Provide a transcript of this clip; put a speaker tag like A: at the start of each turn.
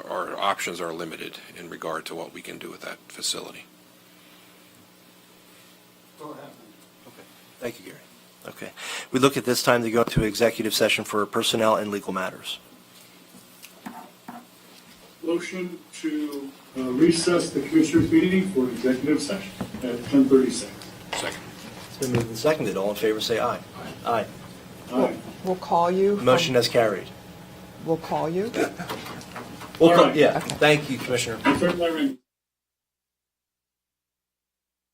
A: options are limited in regard to what we can do with that facility.
B: Go ahead.
C: Thank you, Gary. Okay. We look at this time to go into executive session for personnel and legal matters.
D: Motion to uh, recess the commissioners' meeting for executive session at 10:36.
A: Second.
C: It's been moved and seconded. All in favor, say aye. Aye.
D: Aye.
E: We'll call you. from-
C: Motion as carried.
E: We'll call you.
C: We'll
D: All
C: co-
D: right.
C: Yeah,
E: Okay.
C: thank you, Commissioner.
D: Attorney Laring.